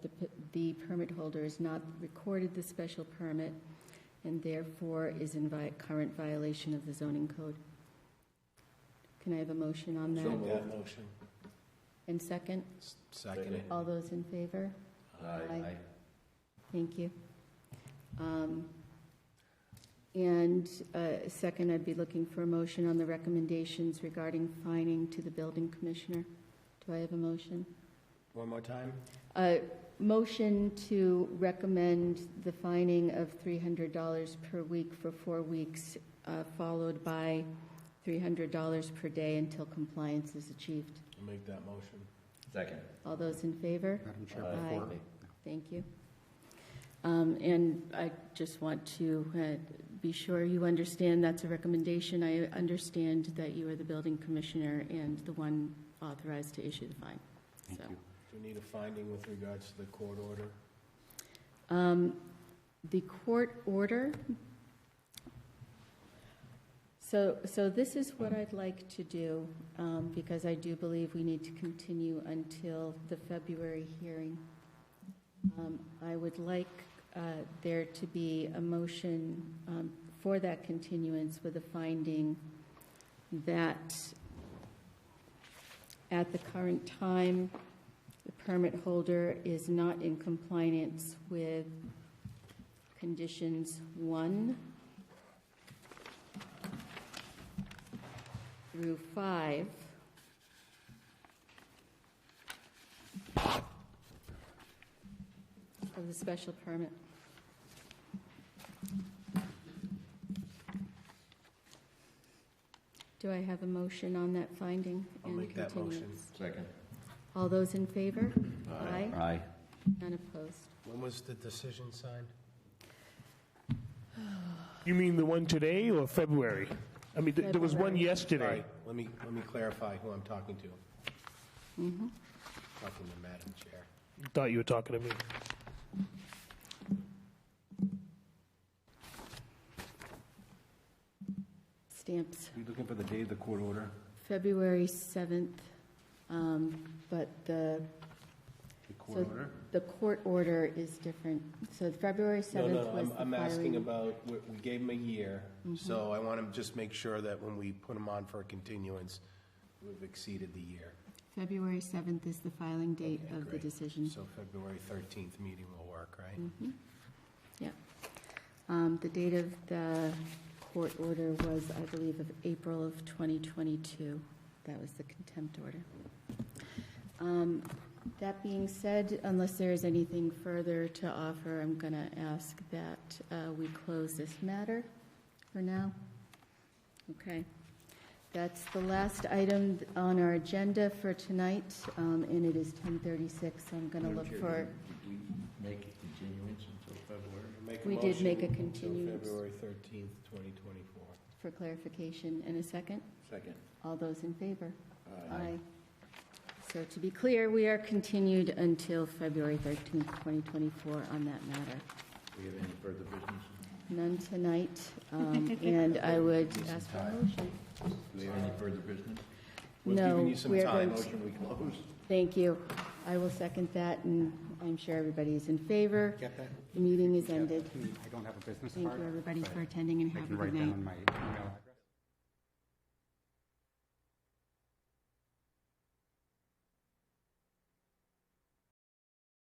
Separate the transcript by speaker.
Speaker 1: the permit holder has not recorded the special permit and therefore is in vi- current violation of the zoning code. Can I have a motion on that?
Speaker 2: So moved.
Speaker 3: That motion.
Speaker 1: And second,
Speaker 3: Second.
Speaker 1: all those in favor? Aye. Thank you. Um, And uh, second, I'd be looking for a motion on the recommendations regarding fining to the building commissioner. Do I have a motion?
Speaker 3: One more time?
Speaker 1: A motion to recommend the fining of $300 per week for four weeks, uh, followed by $300 per day until compliance is achieved.
Speaker 3: I'll make that motion.
Speaker 2: Second.
Speaker 1: All those in favor?
Speaker 4: Madam Chair,
Speaker 1: Aye.
Speaker 4: before,
Speaker 1: Thank you. Um, And I just want to uh, be sure you understand that's a recommendation. I understand that you are the building commissioner and the one authorized to issue the fine.
Speaker 4: thank
Speaker 1: So,
Speaker 4: you.
Speaker 3: Do we need a finding with regards to the court order?
Speaker 1: um, The court order, so, so this is what I'd like to do, um, because I do believe we need to continue until the February hearing. Um, I would like uh, there to be a motion um, for that continuance with a finding that at the current time, the permit holder is not in compliance with conditions one through five. Of the special permit. Do I have a motion on that finding?
Speaker 3: I'll
Speaker 1: and
Speaker 3: make that motion.
Speaker 1: continuance?
Speaker 2: Second.
Speaker 1: All those in favor? Aye.
Speaker 2: Aye.
Speaker 1: None opposed.
Speaker 3: When was the decision signed?
Speaker 5: You mean the one today or February? I mean, th- there was one
Speaker 1: February.
Speaker 3: All
Speaker 5: yesterday.
Speaker 3: right, let me, let me clarify who I'm talking to.
Speaker 1: Mm-hmm.
Speaker 3: Talking to Madam Chair.
Speaker 5: Thought you were talking to me.
Speaker 1: Stamps,
Speaker 3: Are you looking for the date of the court order?
Speaker 1: February 7th, um, but the,
Speaker 3: The
Speaker 1: So-
Speaker 3: court order?
Speaker 1: the court order is different. So February 7th
Speaker 3: No,
Speaker 1: was the
Speaker 3: no, I'm, I'm asking
Speaker 1: filing. Mm-hmm.
Speaker 3: about, we we gave him a year, so I want to just make sure that when we put him on for a continuance, we've exceeded the year.
Speaker 1: February 7th is the filing date
Speaker 3: Okay,
Speaker 1: of the
Speaker 3: great.
Speaker 1: decision.
Speaker 3: So February 13th meeting will work, right?
Speaker 1: Mm-hmm. Um, The date of the court order was, I believe, of April of 2022. That was the contempt order. Um, That being said, unless there is anything further to offer, I'm going to ask that uh, we close this matter for now. Okay. That's the last item on our agenda for tonight, um, and it is 10:36, so I'm going to look for,
Speaker 2: Did we make a continuance until February?
Speaker 3: Make a
Speaker 1: We did make a
Speaker 3: motion
Speaker 1: continuance.
Speaker 3: Until February 13th, 2024.
Speaker 1: for clarification in a second.
Speaker 2: Second.
Speaker 1: All those in favor? So to be clear, we are continued until February 13th, 2024 on that matter.
Speaker 2: Do we have any further business?
Speaker 1: None tonight, um, and I would ask for a motion.
Speaker 2: Do we have any further business?
Speaker 3: We've
Speaker 1: No,
Speaker 3: given you some
Speaker 1: we are
Speaker 3: time.
Speaker 1: going to-
Speaker 2: Motion we close?
Speaker 1: Thank you. I will second that, and I'm sure everybody is in favor.
Speaker 4: Get that?
Speaker 1: The meeting is ended.
Speaker 4: I don't have a business
Speaker 1: Thank
Speaker 4: card.
Speaker 1: you, everybody,
Speaker 4: but
Speaker 1: for attending, and
Speaker 4: I
Speaker 1: have a
Speaker 4: can
Speaker 1: good
Speaker 4: write
Speaker 1: night.
Speaker 4: down my email